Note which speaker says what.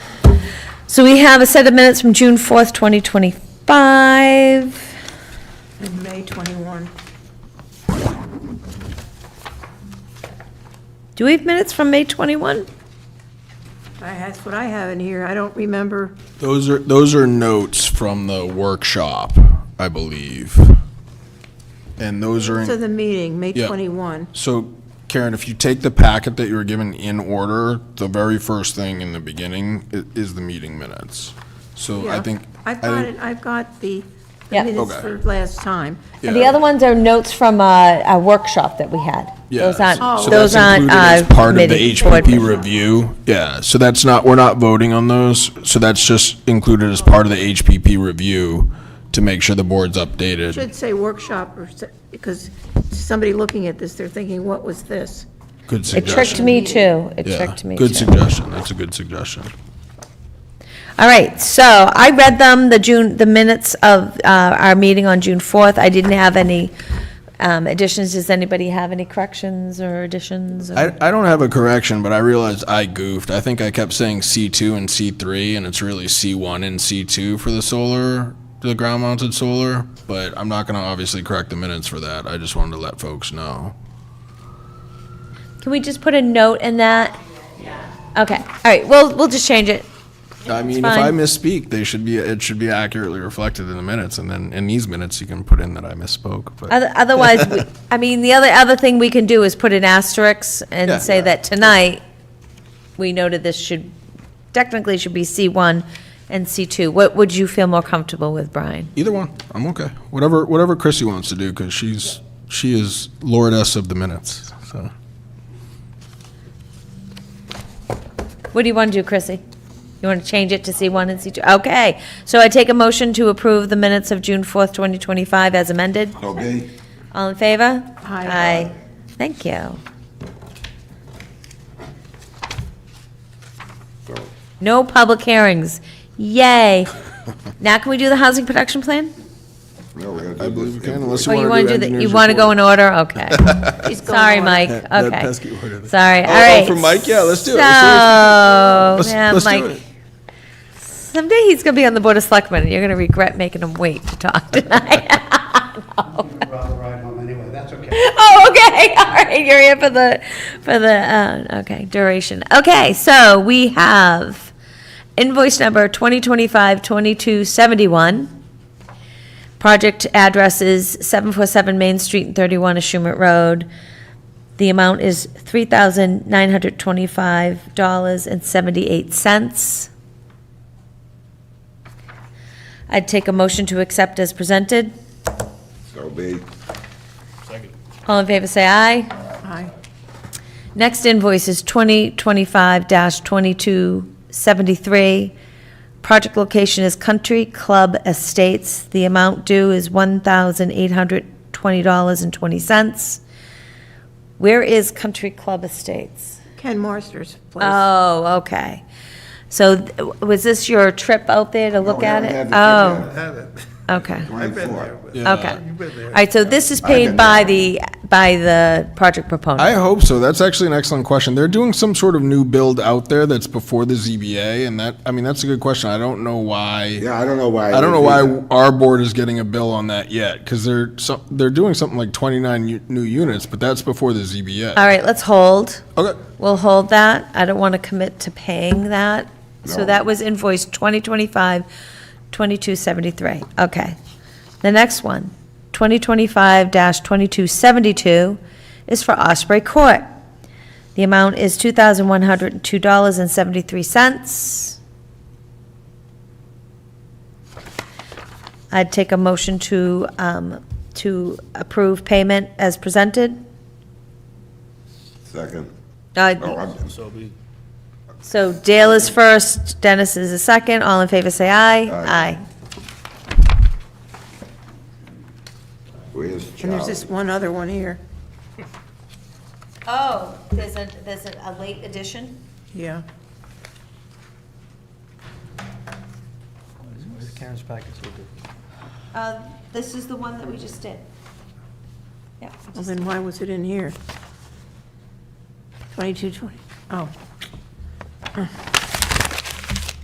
Speaker 1: So we have a set of minutes from June 4th, 2025.
Speaker 2: in May 21.
Speaker 1: Do we have minutes from May 21?
Speaker 2: I- That's what I have in here. I don't remember.
Speaker 3: Those are, those are notes from the workshop, I believe. And those are,
Speaker 2: To
Speaker 3: in-
Speaker 2: the meeting, May
Speaker 3: Yeah.
Speaker 2: 21.
Speaker 3: so Karen, if you take the packet that you were given in order, the very first thing in the beginning i- is the meeting minutes. So I
Speaker 2: Yeah.
Speaker 3: think.
Speaker 2: I've
Speaker 3: I
Speaker 2: got
Speaker 3: think-
Speaker 2: it, I've got the the
Speaker 1: Yeah.
Speaker 2: minutes
Speaker 3: Okay.
Speaker 2: for last time.
Speaker 1: And the
Speaker 3: yeah.
Speaker 1: other ones are notes from uh, a workshop that we had.
Speaker 3: Yeah,
Speaker 1: Those aren't,
Speaker 3: Oh. so- so
Speaker 1: Oh, those
Speaker 3: that's
Speaker 1: aren't.
Speaker 3: included as
Speaker 1: uh,
Speaker 3: Part of the
Speaker 1: committee board
Speaker 3: HPP
Speaker 1: members.
Speaker 3: review, yeah, so that's not, we're not voting on those, so that's just included as part of the HPP review to make sure the board's updated,
Speaker 2: Should say workshop, or, s- because somebody looking at this, they're thinking, what was this?
Speaker 3: good
Speaker 1: It
Speaker 3: suggestion.
Speaker 1: tricked me too. It
Speaker 3: Yeah,
Speaker 1: tricked me
Speaker 3: Good
Speaker 1: too.
Speaker 3: suggestion, that's a good suggestion.
Speaker 1: All right, so I read them, the June, the minutes of uh, our meeting on June 4th. I didn't have any um, additions. Does anybody have any corrections or additions? or-
Speaker 3: I, I don't have a correction, but I realized I goofed, I think I kept saying C two and C three, and it's really C one and C two for the solar, the ground mounted solar, but I'm not gonna obviously correct the minutes for that, I just wanted to let folks know.
Speaker 1: Can we just put a note in that? Okay, all right, well, we'll just change it.
Speaker 3: I mean, if
Speaker 1: fine.
Speaker 3: I misspeak, they should be, it should be accurately reflected in the minutes, and then in these minutes, you can put in that I misspoke, but.
Speaker 1: Oth- Otherwise, we- I mean, the other, other thing we can do is put an asterisk
Speaker 3: Yeah,
Speaker 1: and say
Speaker 3: yeah.
Speaker 1: that tonight, we noted this should, technically should be C1 and C2. What would you feel more comfortable with, Brian?
Speaker 3: Either one, I'm okay. Whatever, whatever Chrissy wants to do, because she's, she is lordess of the minutes, so.
Speaker 1: What do you want to do, Chrissy? You want to change it to C1 and C2? Okay, so I take a motion to approve the minutes of June 4th, 2025 as amended.
Speaker 4: Okay,
Speaker 1: All in favor?
Speaker 2: Aye.
Speaker 1: Aye. Thank you. No public hearings. Yay. Now can we do the housing production plan?
Speaker 4: no, we're
Speaker 3: I
Speaker 4: gonna do
Speaker 3: believe we
Speaker 4: this.
Speaker 3: can, unless
Speaker 1: Or Oh,
Speaker 3: you
Speaker 1: you
Speaker 3: want to do
Speaker 1: the-
Speaker 3: engineers
Speaker 1: You want to go
Speaker 3: report.
Speaker 1: in order? Okay.
Speaker 2: He's going
Speaker 1: Sorry,
Speaker 2: on.
Speaker 1: Mike.
Speaker 3: That- that
Speaker 1: Okay.
Speaker 3: pesky order.
Speaker 1: Sorry, all
Speaker 3: oh,
Speaker 1: right.
Speaker 3: from Mike? Yeah, let's do it.
Speaker 1: So,
Speaker 3: Let's do Let's-
Speaker 1: yeah,
Speaker 3: let's do
Speaker 1: Mike.
Speaker 3: it.
Speaker 1: Someday he's going to be on the Board of Selectmen, and you're going to regret making him wait to talk tonight.
Speaker 5: rather ride home anyway, that's okay.
Speaker 1: Oh, okay, all right, you're here for the, for the, uh, okay, duration. Okay, so we have invoice number 2025-2271. Project address is 747 Main Street and 31 Ashumet Road. The amount is $3,925.78. I'd take a motion to accept as presented.
Speaker 4: So be,
Speaker 1: All in favor, say aye.
Speaker 2: Aye.
Speaker 1: Next invoice is 2025-2273. Project location is Country Club Estates. The amount due is $1,820.20. Where is Country Club Estates?
Speaker 2: Ken Marsters place.
Speaker 1: Oh, okay. So th- was this your trip out there to look
Speaker 4: we
Speaker 1: at
Speaker 4: haven't
Speaker 1: it?
Speaker 4: had the
Speaker 1: Oh, okay.
Speaker 4: twenty-four.
Speaker 1: Okay. All right, so this is paid
Speaker 4: been
Speaker 1: by the, by the project
Speaker 3: I
Speaker 1: proponent.
Speaker 3: hope so. That's actually an excellent question. They're doing some sort of new build out there that's before the ZBA, and that, I mean, that's a good question. I don't know why.
Speaker 4: Yeah, I don't know why.
Speaker 3: I don't know
Speaker 4: they
Speaker 3: why
Speaker 4: did
Speaker 3: our board is getting a bill on that yet, because they're, so- they're doing something like 29 u- new units, but that's before the ZBA.
Speaker 1: All right, let's hold.
Speaker 3: Okay,
Speaker 1: We'll hold that. I don't want to commit to paying that. So
Speaker 4: No.
Speaker 1: that was invoice 2025-2273. Okay. The next one, 2025-2272, is for Osprey Court. The amount is $2,102.73. I'd take a motion to, um, to approve payment as presented.
Speaker 4: that. Second,
Speaker 1: Uh,
Speaker 4: oh, I'm,
Speaker 1: So Dale is first, Dennis is the second, all in favor say aye. Aye.
Speaker 4: where's
Speaker 2: And there's this
Speaker 4: Charlie?
Speaker 2: one other one here.
Speaker 1: Oh, there's a, there's a late addition?
Speaker 2: Yeah.
Speaker 5: Karen's packets will do.
Speaker 1: Uh, this is the one that we just did. Yep.
Speaker 2: Well, then why was it in here? 2220, oh.